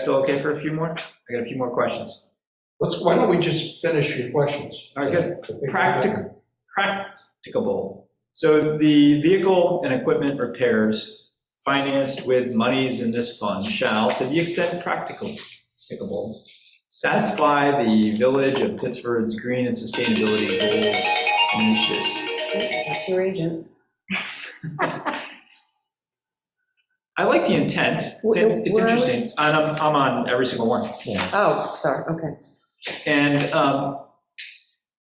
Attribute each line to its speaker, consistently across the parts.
Speaker 1: still okay for a few more? I got a few more questions.
Speaker 2: Let's, why don't we just finish your questions?
Speaker 1: All right,
Speaker 2: good.
Speaker 1: Practic- Practicable. So the vehicle and equipment repairs financed with monies in this fund shall, to the extent practical- practicable, satisfy the Village of Pittsburgh's green and sustainability goals and initiatives.
Speaker 3: That's your agent.
Speaker 1: I like the intent. It's in- it's
Speaker 3: Where are we?
Speaker 1: interesting. And I'm, I'm on every single one.
Speaker 3: Oh, sorry, okay.
Speaker 1: And um,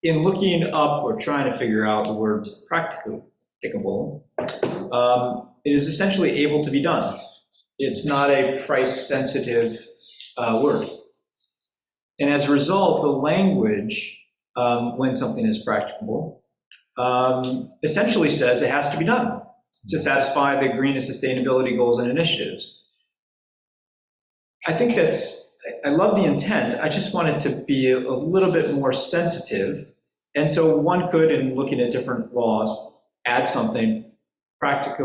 Speaker 1: in looking up or trying to figure out the word practicable, um, it is essentially able to be done. It's not a price-sensitive uh, word. And as a result, the language, um, when something is practicable, um, essentially says it has to be done to satisfy the green and sustainability goals and initiatives. I think that's I- I love the intent, I just want it to be a little bit more sensitive. And so one could, in looking at different laws, add something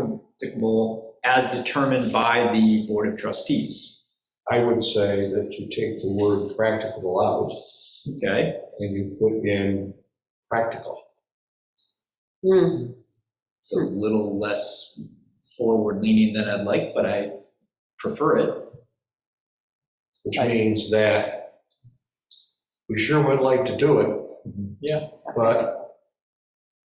Speaker 1: practicable as determined by the Board of Trustees,
Speaker 2: I would say that you take the word practicable out
Speaker 1: okay?
Speaker 2: and you put in practical.
Speaker 3: Hmm,
Speaker 1: It's a little less forward-leaning than I'd like, but I prefer it.
Speaker 2: which means that we sure would like to do it.
Speaker 1: Yeah.
Speaker 2: But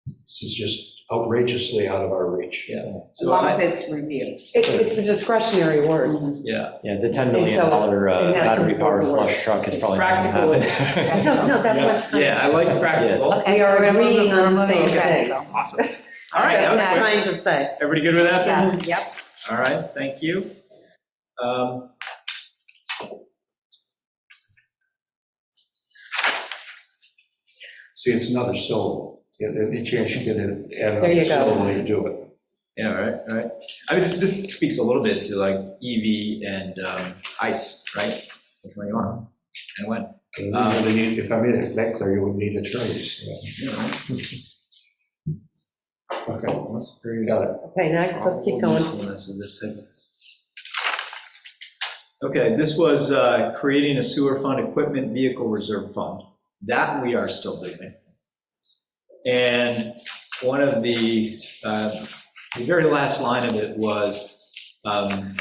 Speaker 2: this is just outrageously out of our reach.
Speaker 4: As
Speaker 1: So
Speaker 4: long as
Speaker 1: I-
Speaker 4: it's reviewed.
Speaker 3: It- It's a discretionary word.
Speaker 1: Yeah,
Speaker 5: Yeah, the $10
Speaker 3: And
Speaker 5: million
Speaker 3: so-
Speaker 5: uh,
Speaker 3: and that's
Speaker 5: battery powered
Speaker 3: important.
Speaker 5: flush truck is probably. not gonna
Speaker 1: practical.
Speaker 5: happen.
Speaker 3: No, no, that's what. I'm-
Speaker 1: Yeah, I like practical.
Speaker 3: We are
Speaker 4: Okay, so we're
Speaker 3: agreeing on the
Speaker 4: moving-
Speaker 3: same
Speaker 4: okay.
Speaker 3: thing.
Speaker 1: Awesome. All right, that
Speaker 3: That's
Speaker 1: was
Speaker 3: what I'm
Speaker 1: quick.
Speaker 3: trying to say.
Speaker 1: Everybody good with that? then?
Speaker 4: Yes, yep.
Speaker 1: All right, thank you. Um,
Speaker 2: See, it's another syllable. And Any chance you get to add
Speaker 3: There you
Speaker 2: another
Speaker 3: go.
Speaker 2: syllable, you do it.
Speaker 1: Yeah, all right, all right. I mean, this speaks a little bit to like EV and um, ICE, right? Which one you want and when?
Speaker 2: And then you really need- If I made it that clear, you would need attorneys.
Speaker 1: you know.
Speaker 2: Okay,
Speaker 1: Let's
Speaker 2: you
Speaker 1: bring up
Speaker 2: got it.
Speaker 3: Okay, next, let's keep going.
Speaker 1: usefulness of this thing. Okay, this was uh, creating a sewer fund equipment vehicle reserve fund. That we are still doing. And one of the, uh, the very last line of it was, um,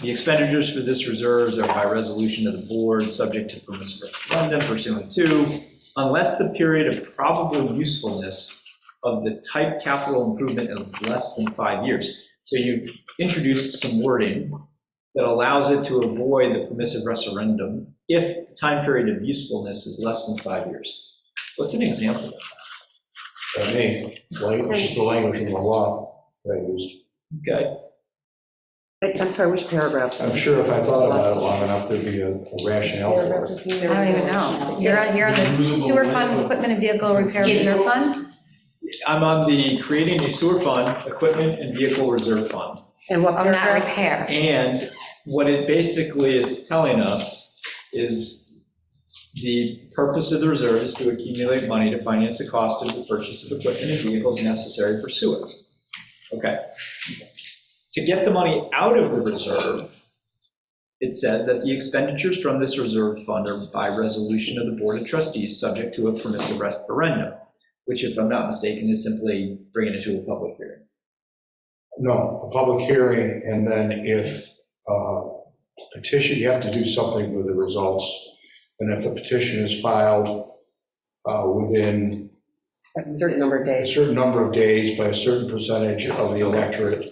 Speaker 1: the expenditures for this reserves are by resolution of the board, subject to permissive referendum pursuant to, unless the period of probable usefulness of the type capital improvement is less than five years. So you introduced some wording that allows it to avoid the permissive referendum if the time period of usefulness is less than five years. What's an example?
Speaker 2: I mean, language is the language in the law that I used.
Speaker 1: Okay,
Speaker 3: Wait, I'm sorry, which paragraph?
Speaker 2: I'm sure if I thought about it long enough, there'd be a a rationale for it.
Speaker 4: I
Speaker 6: I don't even know. You're on, you're on the sewer fund, equipment and vehicle repair reserve fund?
Speaker 1: I'm on the creating a sewer fund, equipment and vehicle reserve fund.
Speaker 3: And what
Speaker 6: Oh, not
Speaker 3: paragraph?
Speaker 6: repair.
Speaker 1: And what it basically is telling us is the purpose of the reserve is to accumulate money to finance the cost of the purchase of equipment and vehicles necessary for sewers. Okay. To get the money out of the reserve, it says that the expenditures from this reserve fund are by resolution of the Board of Trustees, subject to a permissive referendum, which if I'm not mistaken, is simply bringing it to a public hearing.
Speaker 2: No, a public hearing, and then if uh, petition, you have to do something with the results. And if a petition is filed uh, within
Speaker 3: A certain number of
Speaker 2: a
Speaker 3: days.
Speaker 2: certain number of days by a certain percentage of the electorate,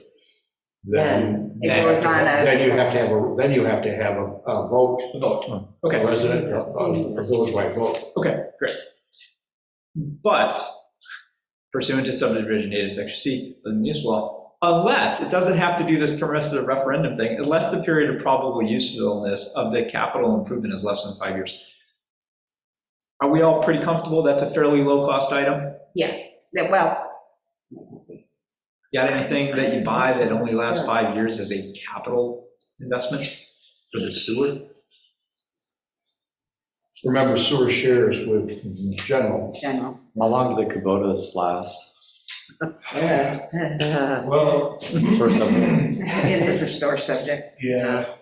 Speaker 2: then.
Speaker 4: It goes on a-
Speaker 2: Then you have to have, a then you have to have a a vote,
Speaker 1: Vote.
Speaker 2: a
Speaker 1: Okay.
Speaker 2: resident, a a village-wide vote.
Speaker 1: Okay, great. But pursuant to subdivision data section C of the municipal law, unless, it doesn't have to do this permissive referendum thing, unless the period of probable usefulness of the capital improvement is less than five years. Are we all pretty comfortable? That's a fairly low-cost item?
Speaker 4: Yeah, that- well,
Speaker 1: Got anything that you buy that only lasts five years as a capital investment for the sewer?
Speaker 2: Remember sewer shares with general.
Speaker 4: general.
Speaker 5: How long do the Kubotas last?
Speaker 2: Yeah.
Speaker 3: Uh,
Speaker 2: Well,
Speaker 5: First of all,
Speaker 4: It is a sore subject.
Speaker 2: yeah.